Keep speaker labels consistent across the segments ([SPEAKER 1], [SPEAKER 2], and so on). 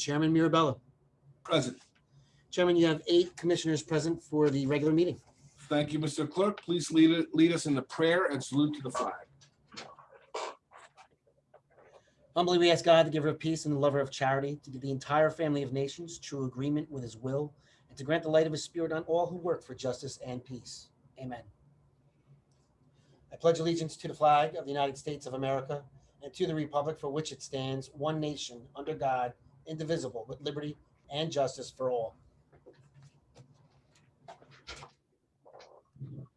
[SPEAKER 1] Chairman Mirabella.
[SPEAKER 2] Present.
[SPEAKER 1] Chairman, you have eight commissioners present for the regular meeting.
[SPEAKER 2] Thank you, Mr. Clerk. Please lead, it- lead us in the prayer and salute to the flag.
[SPEAKER 1] Humbly, we ask God, the giver of peace and the lover of charity, to give the entire family of nations true agreement with his will and to grant the light of his spirit on all who work for justice and peace. Amen. I pledge allegiance to the flag of the United States of America and to the republic for which it stands, one nation, under God, indivisible, with liberty and justice for all.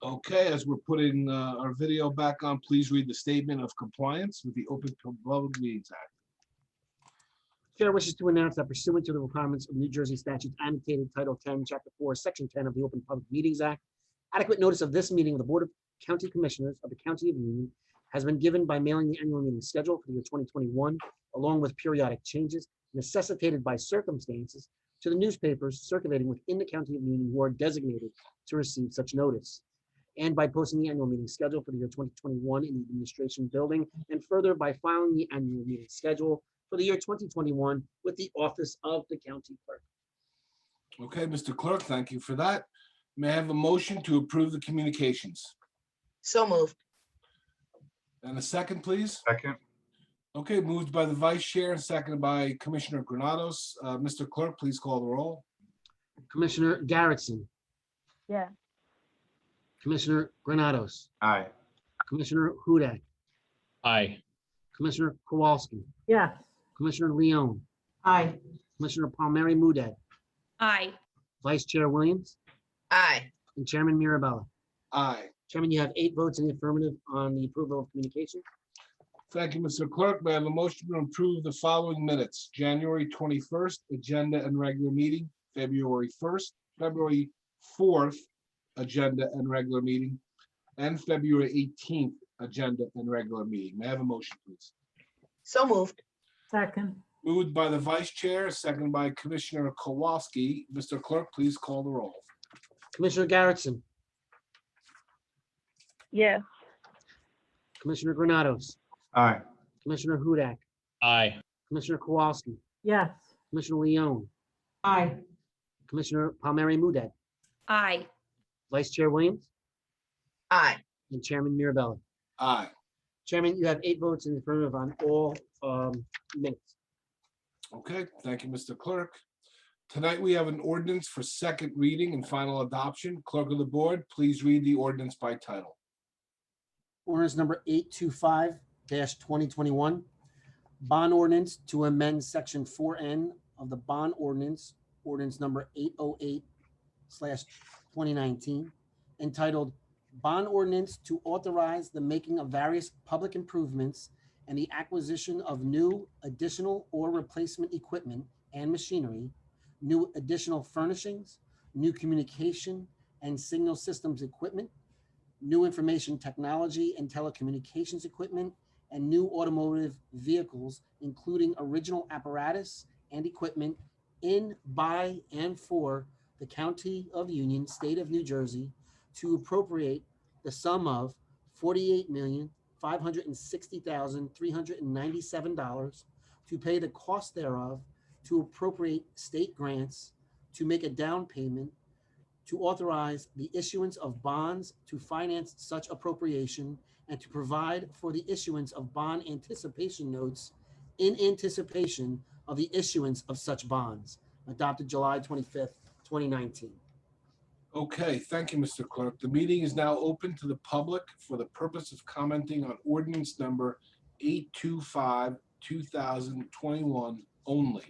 [SPEAKER 2] Okay, as we're putting uh, our video back on, please read the statement of compliance with the Open Public Meetings Act.
[SPEAKER 1] Chair wishes to announce that pursuant to the requirements of New Jersey statutes annotated Title 10, Chapter 4, Section 10 of the Open Public Meetings Act, adequate notice of this meeting of the Board of County Commissioners of the County of Union has been given by mailing the annual meeting schedule for the year 2021, along with periodic changes necessitated by circumstances to the newspapers circulating within the County of Union who are designated to receive such notice, and by posting the annual meeting schedule for the year 2021 in the Administration Building, and further by filing the annual meeting schedule for the year 2021 with the Office of the County Clerk.
[SPEAKER 2] Okay, Mr. Clerk, thank you for that. May I have a motion to approve the communications?
[SPEAKER 3] So moved.
[SPEAKER 2] And a second, please?
[SPEAKER 4] Second,
[SPEAKER 2] Okay, moved by the Vice Chair and seconded by Commissioner Granados. Uh, Mr. Clerk, please call the roll.
[SPEAKER 1] Commissioner Garrettson,
[SPEAKER 5] Yeah,
[SPEAKER 1] Commissioner Granados,
[SPEAKER 4] aye.
[SPEAKER 1] Commissioner Hudak,
[SPEAKER 6] Aye,
[SPEAKER 1] Commissioner Kowalski,
[SPEAKER 3] Yeah.
[SPEAKER 1] Commissioner Leone,
[SPEAKER 3] Aye.
[SPEAKER 1] Commissioner Palmieri Muedad,
[SPEAKER 7] Aye,
[SPEAKER 1] Vice Chair Williams,
[SPEAKER 3] Aye.
[SPEAKER 1] and Chairman Mirabella.
[SPEAKER 2] Aye.
[SPEAKER 1] Chairman, you have eight votes in the affirmative on the approval of communication.
[SPEAKER 2] Thank you, Mr. Clerk. May I have a motion to approve the following minutes? January twenty-first, agenda and regular meeting, February first, February fourth, agenda and regular meeting, and February eighteenth, agenda and regular meeting. May I have a motion, please?
[SPEAKER 3] So moved.
[SPEAKER 8] Second,
[SPEAKER 2] Moved by the Vice Chair, second by Commissioner Kowalski. Mr. Clerk, please call the roll.
[SPEAKER 1] Commissioner Garrettson,
[SPEAKER 5] yeah,
[SPEAKER 1] Commissioner Granados,
[SPEAKER 4] Aye,
[SPEAKER 1] Commissioner Hudak,
[SPEAKER 6] aye,
[SPEAKER 1] Commissioner Kowalski,
[SPEAKER 8] yes,
[SPEAKER 1] Commissioner Leone,
[SPEAKER 3] Aye.
[SPEAKER 1] Commissioner Palmieri Muedad,
[SPEAKER 7] aye,
[SPEAKER 1] Vice Chair Williams,
[SPEAKER 3] Aye.
[SPEAKER 1] and Chairman Mirabella.
[SPEAKER 2] Aye.
[SPEAKER 1] Chairman, you have eight votes in the affirmative on all um, minutes.
[SPEAKER 2] Okay, thank you, Mr. Clerk. Tonight, we have an ordinance for second reading and final adoption. Clerk of the Board, please read the ordinance by title.
[SPEAKER 1] Ordinance number eight two five twenty twenty-one. Bond ordinance to amend section four N of the bond ordinance, ordinance number eight oh eight slash twenty nineteen, entitled Bond Ordinance to Authorize the Making of Various Public Improvements and the Acquisition of New, Additional, or Replacement Equipment and Machinery, New Additional Furnishings, New Communication and Signal Systems Equipment, new information technology and telecommunications equipment, and new automotive vehicles, including original apparatus and equipment in, by, and for the County of Union, State of New Jersey, to appropriate the sum of forty-eight million, five hundred and sixty thousand, three hundred and ninety-seven dollars to pay the cost thereof, to appropriate state grants, to make a down payment, to authorize the issuance of bonds to finance such appropriation and to provide for the issuance of bond anticipation notes in anticipation of the issuance of such bonds, adopted July 25th, 2019.
[SPEAKER 2] Okay, thank you, Mr. Clerk. The meeting is now open to the public for the purpose of commenting on ordinance number 825, 2021 only.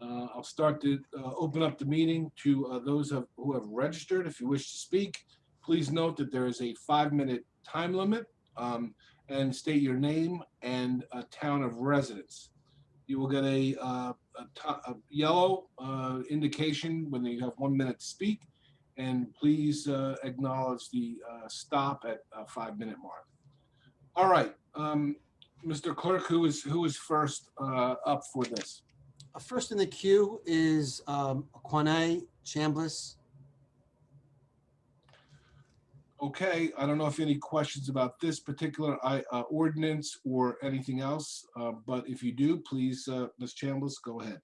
[SPEAKER 2] Uh, I'll start to uh, open up the meeting to uh, those of- who have registered. If you wish to speak, please note that there is a five-minute time limit um, and state your name and uh, town of residence. You will get a uh, a to- a yellow uh, indication when you have one minute to speak. And please uh, acknowledge the uh, stop at a five-minute mark. All right, um, Mr. Clerk, who is, who is first uh, up for this?
[SPEAKER 1] Uh, First in the queue is um, Quanay Chambliss.
[SPEAKER 2] Okay, I don't know if any questions about this particular I- uh, ordinance or anything else, uh, but if you do, please, uh, Ms. uh, Chambliss, go ahead.